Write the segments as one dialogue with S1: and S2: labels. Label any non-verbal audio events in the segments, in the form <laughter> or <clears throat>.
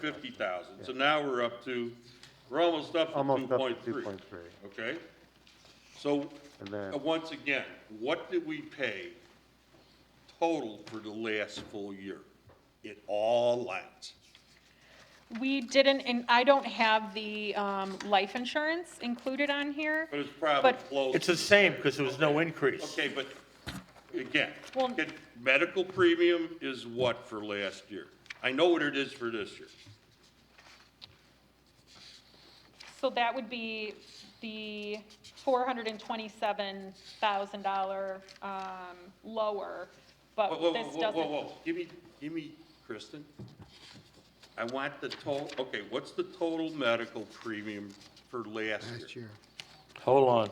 S1: fifty thousand, so now we're up to, we're almost up to two
S2: Almost up
S1: point
S2: to
S1: three.
S2: 2.3.
S1: Okay? So,
S2: And then-
S1: uh, once again, what did we pay total for the last full year? It all lines.
S3: We didn't, and I don't have the um, life insurance included on here.
S1: But it's probably
S3: But-
S1: close.
S4: It's the same, because there was no increase.
S1: Okay, but again,
S3: Well-
S1: can- medical premium is what for last year? I know what it is for this year.
S3: So that would be the $427,000 um, lower, but
S1: Whoa, whoa,
S3: this
S1: whoa, whoa,
S3: doesn't.
S1: whoa, give me, give me, Kristen. I want the total, okay, what's the total medical premium for last year?
S4: Hold on.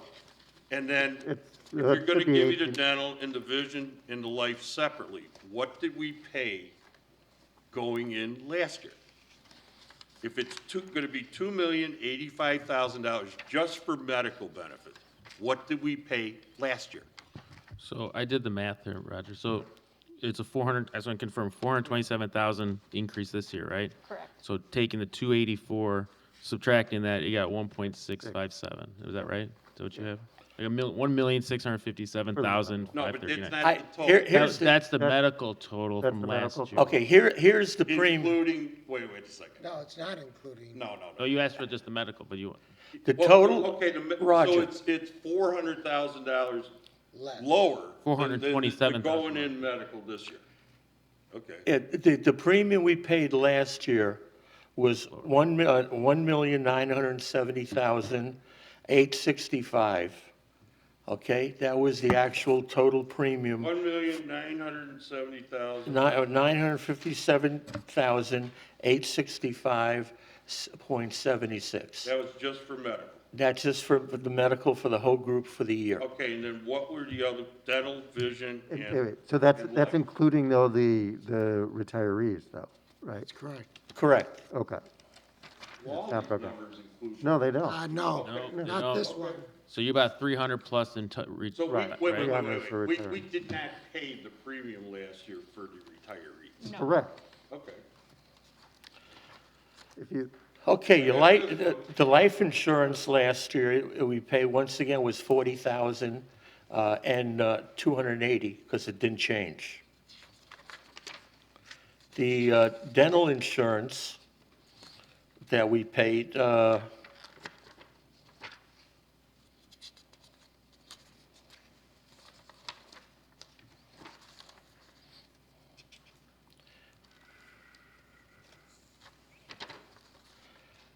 S1: And then, if
S2: It's-
S1: you're
S2: that
S1: gonna
S2: should be
S1: give me the
S2: 18.
S1: dental and the vision and the life separately, what did we pay going in last year? If it's two, gonna be two million eighty-five thousand dollars just for medical benefits, what did we pay last year?
S5: So I did the math there, Roger. So it's a four hundred, I just want to confirm, four hundred twenty-seven thousand increase this year, right?
S3: Correct.
S5: So taking the two eighty-four, subtracting that, you got one point six five seven. Is that right? Is that what you have? Like a mil, one million six hundred fifty-seven thousand
S1: No,
S5: five
S1: but it's
S5: thirty-nine.
S1: not
S4: I-
S1: the total.
S4: here- here-
S5: That's,
S4: Here's the-
S5: that's the
S2: that's-
S5: medical total
S2: that's
S5: from
S2: the
S5: last
S2: medical
S5: year.
S4: Okay, here, here's the premium.
S1: Including, wait, wait a second.
S6: No, it's not including.
S1: No, no,
S5: No,
S1: no.
S5: Oh, you asked for just the medical, but you,
S4: The
S1: Well,
S4: total,
S1: Okay, the mi- so
S4: Roger,
S1: it's, it's four hundred thousand dollars
S6: Less.
S1: lower. than- than the- the
S5: $427,000.
S1: Going in medical this year. Okay,
S4: it- the, the premium we paid last year was one, mil- uh, one million nine hundred and seventy thousand, eight sixty-five. Okay, that was the actual total premium. uh,
S1: one million nine hundred and seventy thousand,
S4: Nine hundred fifty-seven thousand eight sixty-five point seventy-six.
S1: that was just for medical.
S4: That's just for the medical for the whole group for the year.
S1: Okay, and then what were the other, dental, vision,
S2: And-
S1: and,
S2: anyway, So that's,
S1: and
S2: that's
S1: life.
S2: including though the, the retirees though, right?
S6: That's correct.
S4: Correct.
S2: Okay.
S1: Well, all
S2: not
S1: these
S2: broken.
S1: numbers include.
S2: No, they don't.
S6: Uh, no,
S5: No, no.
S6: not this one.
S5: so you're about three hundred plus in, to- re-
S1: So we,
S5: right,
S1: wait, wait,
S5: right?
S1: wait,
S2: Right.
S1: wait,
S2: For
S1: wait. we,
S2: retirement.
S1: we did not pay the premium last year for the retirees.
S3: No.
S2: Correct.
S1: Okay,
S2: If you,
S4: Okay, your life, the- the life insurance last year, we paid, once again, was forty thousand, uh, and, uh, two hundred and eighty, because it didn't change. The, uh, dental insurance that we paid, uh,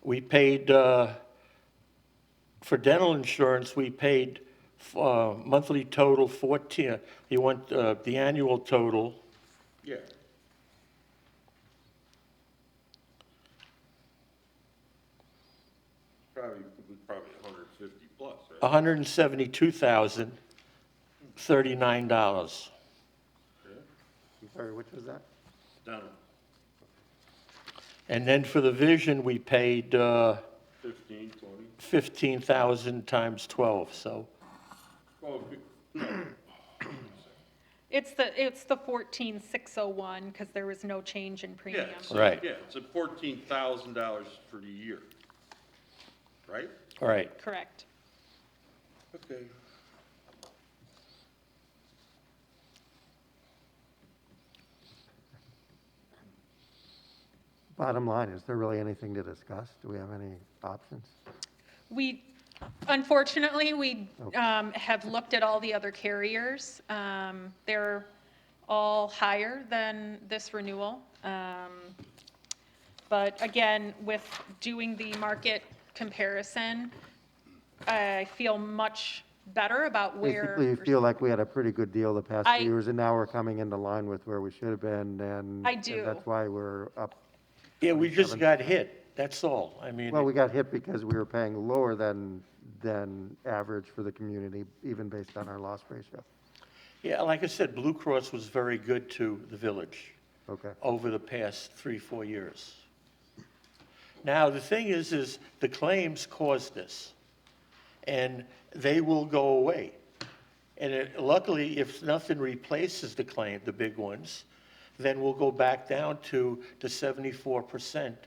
S4: We paid, uh, for dental insurance, we paid uh, monthly total 14, you want uh, the annual total,
S1: yeah. Probably, probably a hundred and fifty plus, right?
S4: $172,039.
S2: I'm sorry, which was that?
S1: Down
S4: And then for the vision, we paid uh,
S1: fifteen, twenty.
S4: 15,000 times 12, so
S1: Oh, good. <clears throat>
S3: It's the, it's the 14,601 because there was no change in
S1: yeah.
S3: premium.
S1: it's-
S4: Right.
S1: Yeah, it's a fourteen thousand dollars for the year, right?
S4: all right.
S3: Correct.
S1: Okay.
S2: Bottom line, is there really anything to discuss? Do we have any options?
S3: We, unfortunately, we um, have looked at all the other carriers. Um, They're all higher than this renewal. Um, But again, with doing the market comparison, I feel much better about where.
S2: Basically, you feel like we had a pretty good deal the past
S3: I-
S2: few years and now we're coming into line with where we should have been and.
S3: I
S2: and
S3: do.
S2: That's why we're up.
S4: Yeah, we just got hit, that's all. I mean,
S2: Well, we got hit because we were paying lower than, than average for the community, even based on our loss ratio.
S4: yeah, like I said, Blue Cross was very good to the village.
S2: Okay.
S4: over the past three, four years. Now, the thing is, is the claims caused this, and they will go away. And it- luckily, if nothing replaces the claim, the big ones, then we'll go back down to the seventy-four percent